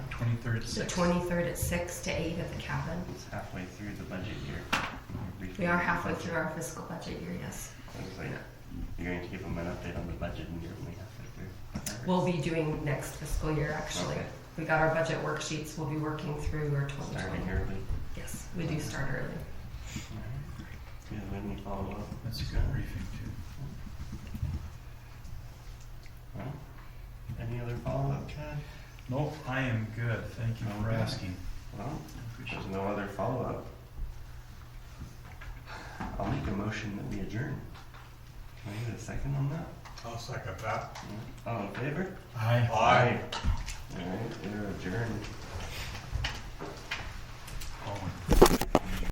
23rd at The 6. twenty-third at six to eight at the cabin. It's halfway through the budget year. We've- We are halfway through our fiscal budget year, yes. I was like, you're going to give them an update on the budget and you're only halfway through. Whatever. We'll be doing next fiscal year, actually. Okay. We got our budget worksheets, we'll be working through our twenty Starting twenty. early. Yes, we do start early. Yeah, when we follow up. That's a good briefing too. Well, Any other follow-up, Chad? Nope, I am good, thank you for Okay. asking. Well, I appreciate there's no other follow-up. I'll make a motion that we adjourn. Can I get a second on that? I'll second that. Yeah. All in favor? it. Aye. Aye. All right, we're adjourned.